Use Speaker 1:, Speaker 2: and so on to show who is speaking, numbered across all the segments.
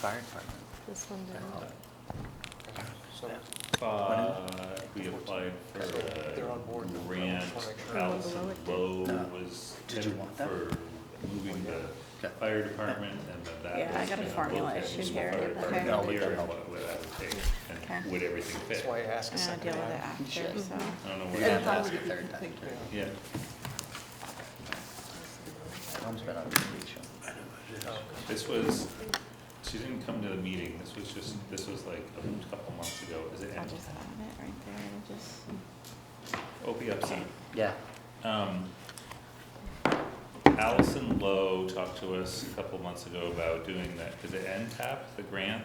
Speaker 1: Fire department.
Speaker 2: This one
Speaker 1: Oh,
Speaker 3: Oh,
Speaker 2: didn't.
Speaker 4: So
Speaker 5: But uh, we applied for
Speaker 4: They're on board.
Speaker 5: a grant,
Speaker 2: sure.
Speaker 5: Allison Lowe
Speaker 1: No.
Speaker 5: was
Speaker 1: Did you
Speaker 5: headed
Speaker 1: want that?
Speaker 5: for moving the
Speaker 1: Okay.
Speaker 5: fire department and then that.
Speaker 6: Yeah, I
Speaker 5: was
Speaker 6: got a
Speaker 5: gonna
Speaker 6: formula
Speaker 5: look at
Speaker 6: issue
Speaker 5: the
Speaker 6: here.
Speaker 5: fire
Speaker 6: Okay.
Speaker 5: department
Speaker 1: Yeah, I'll look
Speaker 5: here
Speaker 1: that
Speaker 5: and
Speaker 1: up.
Speaker 5: What what that would take and
Speaker 6: Okay.
Speaker 5: would everything
Speaker 4: that's
Speaker 5: fit?
Speaker 4: why I ask a
Speaker 6: And I
Speaker 4: second
Speaker 6: deal with it
Speaker 4: time.
Speaker 6: after, so.
Speaker 5: I don't know where
Speaker 1: Yeah,
Speaker 5: that
Speaker 1: that's
Speaker 5: was.
Speaker 1: the third time.
Speaker 5: Yeah,
Speaker 1: Tom's been on vacation.
Speaker 5: this was, she didn't come to the meeting, this was just, this was like a couple months ago, is it?
Speaker 6: I'll just add it right there and just,
Speaker 5: OPFC.
Speaker 1: Yeah.
Speaker 5: Um, Allison Lowe talked to us a couple months ago about doing that, is it NTAP, the grant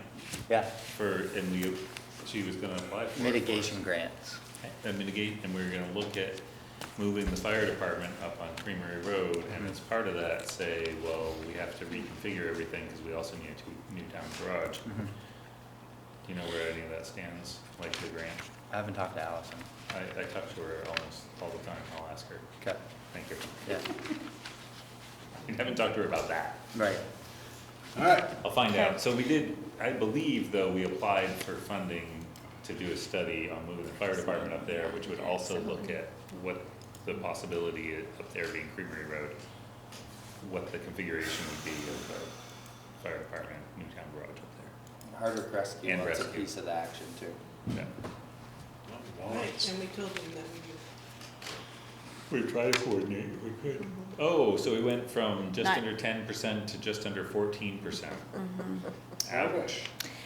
Speaker 1: Yeah,
Speaker 5: for, and we, she was gonna apply for. it.
Speaker 1: mitigation grants.
Speaker 5: And mitigate, and we were gonna look at moving the fire department up on Creamery Road, and as part of that, say, well, we have to reconfigure everything, cause we also need a two- new town garage.
Speaker 1: Mhm.
Speaker 5: Do you know where any of that stands, like the grant?
Speaker 1: I haven't talked to Allison.
Speaker 5: I, I talk to her almost all the time, I'll ask her,
Speaker 1: Okay,
Speaker 5: thank you.
Speaker 1: yeah,
Speaker 5: I haven't talked to her about that.
Speaker 1: right.
Speaker 5: I'll find out. So we did, I believe though, we applied for funding to do a study on moving the fire department up there, which would also look at what the possibility i- up there being Creamery Road, what the configuration would be of the fire department, Newtown Garage up
Speaker 1: Hardwick Rescue
Speaker 5: And
Speaker 1: wants a
Speaker 5: rescue.
Speaker 1: piece of the action too.
Speaker 5: there. Yeah.
Speaker 7: Right, and we told them that we would.
Speaker 5: We tried to coordinate if we could. Oh, so we went from just
Speaker 6: Not- Mm-hmm.
Speaker 5: under ten percent to just under fourteen percent. Ouch.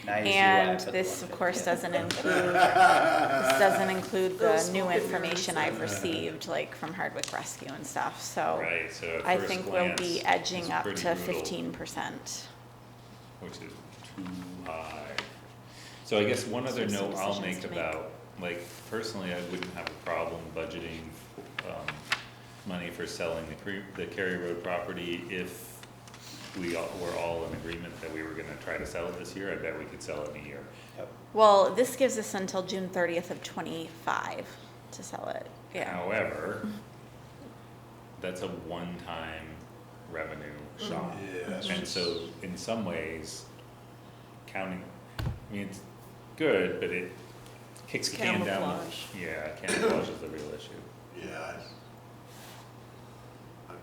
Speaker 1: Now you see why I
Speaker 6: and
Speaker 1: put the
Speaker 6: this, of
Speaker 1: 150.
Speaker 6: course, doesn't include, this doesn't include the new information I've received, like from Hardwick Rescue and stuff, so.
Speaker 5: Right, so at
Speaker 6: I
Speaker 5: first
Speaker 6: think we'll
Speaker 5: glance,
Speaker 6: be edging
Speaker 5: it's
Speaker 6: up
Speaker 5: pretty
Speaker 6: to
Speaker 5: brutal.
Speaker 6: fifteen percent.
Speaker 5: which is too high. So I guess one other
Speaker 6: So some
Speaker 5: note I'll
Speaker 6: decisions
Speaker 5: make
Speaker 6: to make.
Speaker 5: about, like, personally, I wouldn't have a problem budgeting, um, money for selling the Cre- the Cary Road property if we all, were all in agreement that we were gonna try to sell it this year, I bet we could sell it in a year.
Speaker 1: Yep.
Speaker 6: Well, this gives us until June thirtieth of twenty-five to sell it, yeah.
Speaker 5: However, that's a one-time revenue shot.
Speaker 3: Mm-hmm.
Speaker 5: And so, in some ways, counting, I mean, it's good, but it kicks the can down.
Speaker 7: Camouflage.
Speaker 5: the- Yeah, camouflage is the real issue,
Speaker 3: Yeah. I- uh, I'm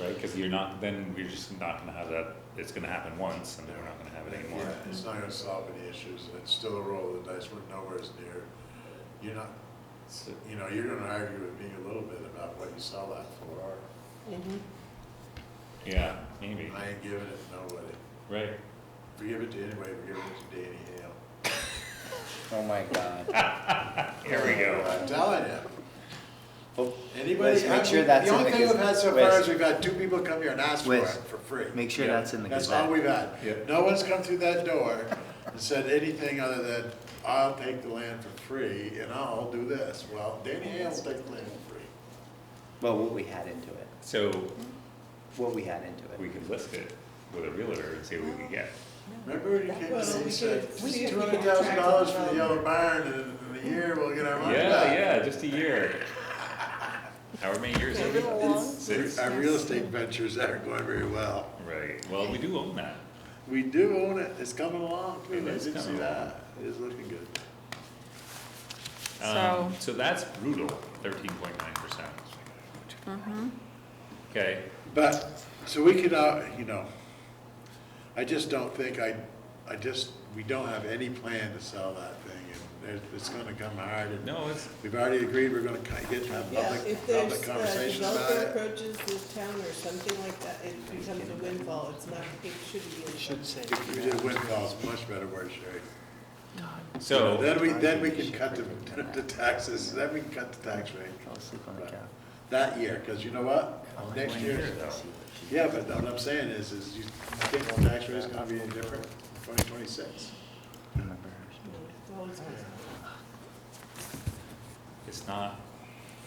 Speaker 3: not
Speaker 5: right? Cause you're not, then we're just not gonna have that, it's gonna happen once and then we're not gonna have it
Speaker 3: into that.
Speaker 5: anymore.
Speaker 3: Yeah, it's not gonna solve any issues, and it's still a roll of the dice, we're nowhere as near. You're not,
Speaker 5: So,
Speaker 3: you know, you're gonna argue with me a little bit about what you sell that for.
Speaker 5: yeah, maybe,
Speaker 3: I ain't giving it to nobody.
Speaker 5: right,
Speaker 3: If we give it to anybody, we give it to Danny Hale.
Speaker 1: Oh my god.
Speaker 5: here we go.
Speaker 3: I'm telling you.
Speaker 1: Well,
Speaker 3: Anybody,
Speaker 1: Let's make sure
Speaker 3: I-
Speaker 1: that's
Speaker 3: the
Speaker 1: in
Speaker 3: only
Speaker 1: the
Speaker 3: thing we've
Speaker 1: gazette.
Speaker 3: had so far
Speaker 1: Wes.
Speaker 3: is we've had two people come here and ask for it
Speaker 1: Wes,
Speaker 3: for free.
Speaker 1: Make sure
Speaker 5: Yeah.
Speaker 1: that's in the
Speaker 3: That's
Speaker 1: Gazette.
Speaker 3: all we've had.
Speaker 5: Yeah.
Speaker 3: No one's come through that door and said anything other than, I'll take the land for free and I'll do this. Well, Danny Hale will take the land for free.
Speaker 1: Well, what we had into it,
Speaker 5: So,
Speaker 1: what we had into it.
Speaker 5: we could list it with a realtor and see what we can get.
Speaker 3: Remember when you came to me
Speaker 7: Well,
Speaker 3: and
Speaker 7: we
Speaker 3: said,
Speaker 7: could- we could
Speaker 3: two hundred thousand dollars for the
Speaker 7: contract
Speaker 3: yellow barn and in a year we'll get our money
Speaker 5: Yeah,
Speaker 3: back?
Speaker 5: yeah, just a year. However many years it is. Six.
Speaker 3: Our real estate ventures are going very well.
Speaker 5: Right, well, we do own that.
Speaker 3: We do own it. It's coming along. I
Speaker 5: It
Speaker 3: did
Speaker 5: is
Speaker 3: see
Speaker 5: coming
Speaker 3: that. It is looking good.
Speaker 5: Um,
Speaker 6: So-
Speaker 5: So that's brutal, thirteen point nine percent.
Speaker 6: Mm-hmm.
Speaker 5: Okay,
Speaker 3: But, so we could, uh, you know, I just don't think, I, I just, we don't have any plan to sell that thing, and it- it's gonna come hard, and
Speaker 5: no, it's,
Speaker 3: we've already agreed we're gonna ki- get to have
Speaker 7: Yeah,
Speaker 3: public,
Speaker 7: if there's,
Speaker 3: public
Speaker 7: the
Speaker 3: conversations about
Speaker 7: developer
Speaker 3: it.
Speaker 7: approaches the town or something like that, it becomes a windfall, it's not, it shouldn't be. a windfall.
Speaker 4: say.
Speaker 3: If we did windfall's much better word, Sherry. You know,
Speaker 5: so,
Speaker 3: Then we, then we can cut the, the taxes, then we can cut the tax rate
Speaker 1: Fell asleep on the couch.
Speaker 3: that year, cause you know what?
Speaker 1: Oh, I like
Speaker 3: Next
Speaker 1: when
Speaker 3: year,
Speaker 1: you see what she-
Speaker 3: yeah, but what I'm saying is, is you think the tax rate's gonna be any different in twenty twenty-six?
Speaker 1: Remember her.
Speaker 7: Well, it's-
Speaker 5: it's not,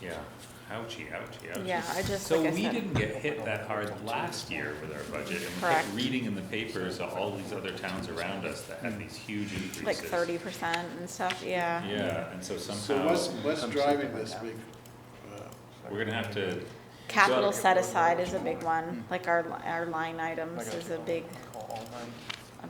Speaker 5: yeah, ouchie, ouchie, ouchie.
Speaker 6: Yeah, I just,
Speaker 5: So
Speaker 6: like I
Speaker 5: we
Speaker 6: said,
Speaker 5: didn't get hit that hard last year with our budget, and we
Speaker 6: Correct.
Speaker 5: kept reading in the papers of all these other towns around us that had these huge increases.
Speaker 6: like thirty percent and stuff, yeah.
Speaker 5: Yeah, and so
Speaker 3: So what's,
Speaker 5: somehow,
Speaker 3: what's driving this big, uh,
Speaker 5: we're gonna have to,
Speaker 6: Capital
Speaker 5: So-
Speaker 6: set aside is a big one, like our, our line items is a big,